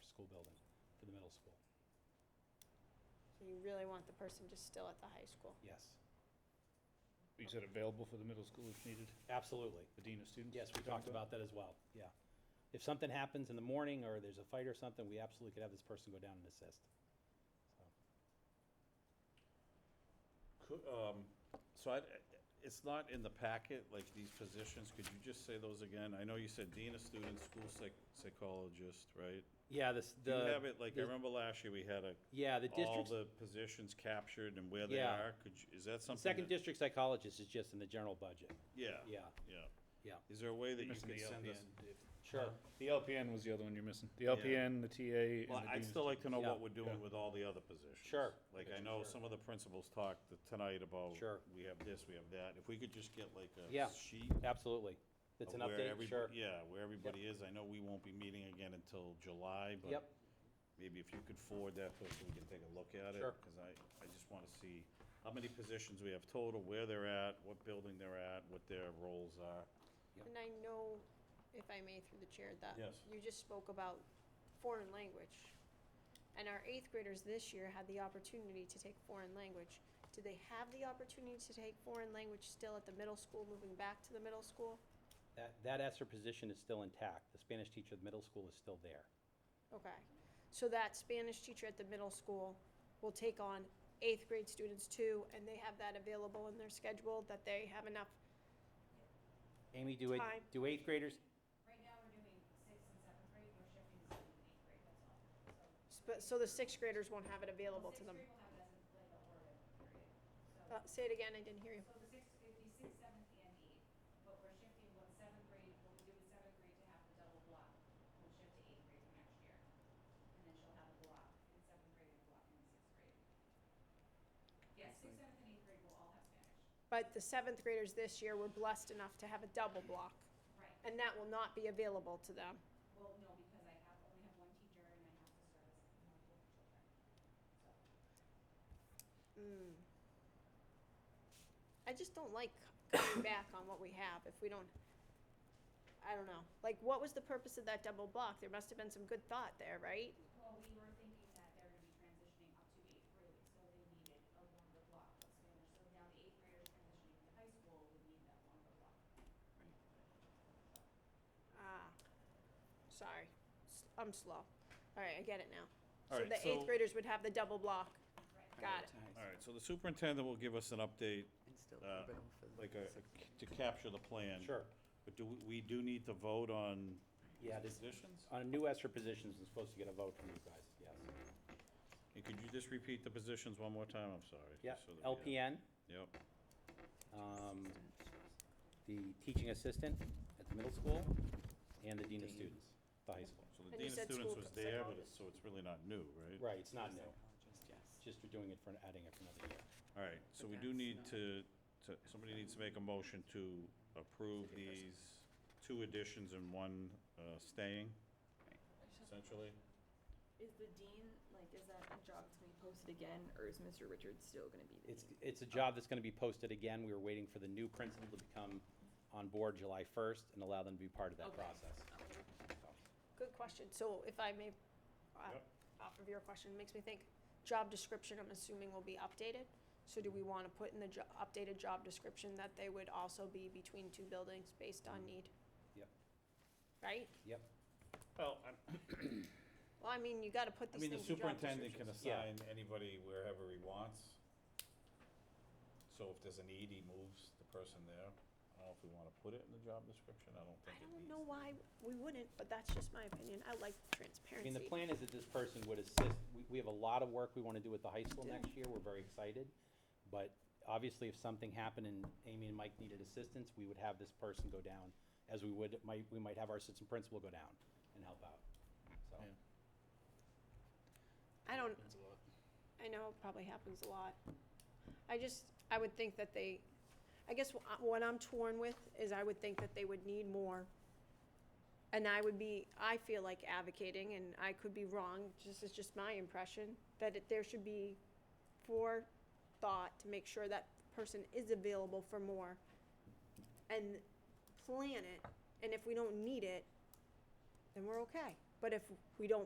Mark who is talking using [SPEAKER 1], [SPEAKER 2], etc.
[SPEAKER 1] school building for the middle school.
[SPEAKER 2] So you really want the person just still at the high school?
[SPEAKER 1] Yes,
[SPEAKER 3] You said available for the middle school if needed,
[SPEAKER 1] absolutely.
[SPEAKER 3] the dean of students?
[SPEAKER 1] Yes, we talked about that as well, yeah. If something happens in the morning or there's a fight or something, we absolutely could have this person go down and assist. So,
[SPEAKER 4] Could, um, So I, it's not in the packet, like these positions, could you just say those again? I know you said dean of students, school psych- psychologist, right?
[SPEAKER 1] Yeah, this,
[SPEAKER 4] Do
[SPEAKER 1] the.
[SPEAKER 4] you have it, like, I
[SPEAKER 1] the-
[SPEAKER 4] remember last year we had a,
[SPEAKER 1] Yeah, the
[SPEAKER 4] all
[SPEAKER 1] district's,
[SPEAKER 4] the positions captured and where they
[SPEAKER 1] Yeah.
[SPEAKER 4] are? Could you, is that something?
[SPEAKER 1] second
[SPEAKER 4] that-
[SPEAKER 1] district psychologist is just in the general budget,
[SPEAKER 4] Yeah.
[SPEAKER 1] yeah,
[SPEAKER 4] Yeah.
[SPEAKER 1] yeah,
[SPEAKER 4] Is there a way that you
[SPEAKER 3] Missing
[SPEAKER 4] could
[SPEAKER 3] the
[SPEAKER 4] send us? Uh-huh.
[SPEAKER 1] sure.
[SPEAKER 3] The LPN was the other one you're missing. The LPN, the TA,
[SPEAKER 4] Well,
[SPEAKER 3] and the dean
[SPEAKER 4] I'd
[SPEAKER 3] of
[SPEAKER 4] still like to know
[SPEAKER 1] Yeah.
[SPEAKER 4] what we're doing with all the other positions.
[SPEAKER 1] Sure.
[SPEAKER 4] Like, I know some of the principals talked th- tonight about.
[SPEAKER 1] Sure.
[SPEAKER 4] We have this, we have that. If we could just get like
[SPEAKER 1] Yeah.
[SPEAKER 4] a sheet.
[SPEAKER 1] Absolutely. It's an
[SPEAKER 4] of where
[SPEAKER 1] update,
[SPEAKER 4] everyb-
[SPEAKER 1] sure.
[SPEAKER 4] Yeah, where everybody is. I know we won't be meeting again until July, but.
[SPEAKER 1] Yep.
[SPEAKER 4] Maybe if you could forward that to us, we can take a look at it.
[SPEAKER 1] Sure.
[SPEAKER 4] Because I, I just want to see how many positions we have total, where they're at, what building they're at, what their roles are.
[SPEAKER 1] Yep.
[SPEAKER 2] And I know, if I may through the chair, that
[SPEAKER 4] Yes.
[SPEAKER 2] you just spoke about foreign language. And our eighth graders this year had the opportunity to take foreign language. Do they have the opportunity to take foreign language still at the middle school, moving back to the middle school?
[SPEAKER 1] That, that ESER position is still intact. The Spanish teacher at the middle school is still there.
[SPEAKER 2] Okay. So that Spanish teacher at the middle school will take on eighth grade students too, and they have that available in their schedule, that they have enough
[SPEAKER 1] Amy, do
[SPEAKER 2] Time.
[SPEAKER 1] eighth, do eighth graders,
[SPEAKER 5] Right now, we're doing sixth and seventh grade, we're shifting to seventh and eighth grade, that's all. So
[SPEAKER 2] But, so the sixth graders won't have it available to
[SPEAKER 5] Sixth
[SPEAKER 2] them.
[SPEAKER 5] grade will have it as a, like a word period. So,
[SPEAKER 2] Uh, say it again, I didn't hear you.
[SPEAKER 5] so the sixth, it'd be sixth, seventh, and eighth, but we're shifting what seventh grade, what we do with seventh grade to have the double block. We'll shift to eighth grade for next year. And then she'll have a block in seventh grade and a block in sixth grade. Yeah, sixth, seventh, and eighth grade will all have Spanish.
[SPEAKER 2] But the seventh graders this year were blessed enough to have a double block,
[SPEAKER 5] Right.
[SPEAKER 2] and that will not be available to them.
[SPEAKER 5] Well, no, because I have, only have one teacher and I have to service multiple children.
[SPEAKER 2] Mm.
[SPEAKER 5] So.
[SPEAKER 2] I just don't like coming back on what we have if we don't, I don't know. Like, what was the purpose of that double block? There must have been some good thought there, right?
[SPEAKER 5] Well, we were thinking that they're gonna be transitioning up to eighth grade, so they needed a longer block of Spanish. So now the eighth graders transitioning to high school would need that longer block.
[SPEAKER 2] Ah, sorry, S- I'm slow. All right, I get it now.
[SPEAKER 4] All
[SPEAKER 2] So
[SPEAKER 4] right,
[SPEAKER 2] the eighth
[SPEAKER 4] so-
[SPEAKER 2] graders would have the double block.
[SPEAKER 5] Right.
[SPEAKER 2] Got it.
[SPEAKER 4] All right, so the superintendent will give us an update,
[SPEAKER 6] And still
[SPEAKER 4] uh,
[SPEAKER 6] open for the
[SPEAKER 4] like a,
[SPEAKER 6] sixth grade.
[SPEAKER 4] to capture the plan.
[SPEAKER 1] Sure.
[SPEAKER 4] But do, we- we do need to vote on
[SPEAKER 1] Yeah, this,
[SPEAKER 4] positions?
[SPEAKER 1] on a new ESER position, is supposed to get a vote from you guys, yes.
[SPEAKER 4] And could you just repeat the positions one more time? I'm sorry.
[SPEAKER 1] Yeah,
[SPEAKER 4] just so that we have-
[SPEAKER 1] LPN,
[SPEAKER 4] Yep,
[SPEAKER 1] um, the teaching assistant at the middle school, and the dean of students, the high school.
[SPEAKER 4] so the
[SPEAKER 2] And you
[SPEAKER 4] dean of
[SPEAKER 2] said
[SPEAKER 4] students
[SPEAKER 2] school
[SPEAKER 4] was there, but it's,
[SPEAKER 2] psychologist.
[SPEAKER 4] so it's really not new, right?
[SPEAKER 1] Right, it's not new,
[SPEAKER 6] Psychologist, yes.
[SPEAKER 1] just we're doing it for, adding it for another year.
[SPEAKER 4] All right, so we do
[SPEAKER 6] that's
[SPEAKER 4] need
[SPEAKER 6] not-
[SPEAKER 4] to, to, somebody needs to make a motion to approve these two additions and one uh, staying, essentially.
[SPEAKER 7] Is the dean, like, is that a job that's gonna be posted again, or is Mr. Richards still gonna be the
[SPEAKER 1] It's,
[SPEAKER 7] dean?
[SPEAKER 1] it's a job that's going to be posted again. We were waiting for the new principal to become on board July 1st and allow them to be part of that
[SPEAKER 7] Okay.
[SPEAKER 1] process.
[SPEAKER 2] Good question. So if I may, uh,
[SPEAKER 4] Yep.
[SPEAKER 2] off of your question, it makes me think, job description, I'm assuming will be updated. So do we want to put in the jo- updated job description that they would also be between two buildings based
[SPEAKER 4] Mm-hmm.
[SPEAKER 2] on need,
[SPEAKER 1] Yep,
[SPEAKER 2] right?
[SPEAKER 1] yep.
[SPEAKER 4] Well, I'm,
[SPEAKER 2] Well, I mean, you got to put
[SPEAKER 4] I
[SPEAKER 2] these
[SPEAKER 4] mean, the
[SPEAKER 2] things in job
[SPEAKER 4] superintendent can
[SPEAKER 2] descriptions.
[SPEAKER 1] Yeah.
[SPEAKER 4] assign anybody wherever he wants. So if there's a need, he moves the person there. I don't know if we want to put it in the job description, I don't
[SPEAKER 2] I
[SPEAKER 4] think it needs.
[SPEAKER 2] don't know
[SPEAKER 4] to.
[SPEAKER 2] why we wouldn't, but that's just my opinion. I like
[SPEAKER 1] I
[SPEAKER 2] transparency.
[SPEAKER 1] mean, the plan is that this person would assist, we, we have a lot of work we want to do with the high school next year. We're very excited. But obviously, if something happened and Amy and Mike needed assistance, we would have this person go down, as we would, might, we might have our assistant principal go down and help out, so.
[SPEAKER 2] I don't, I know it probably happens a lot. I just, I would think that they, I guess wh- uh, what I'm torn with is I would think that they would need more. And I would be, I feel like advocating, and I could be wrong, this is just my impression, that it- there should be forethought to make sure that person is available for more. And plan it, and if we don't need it, then we're okay. But if we don't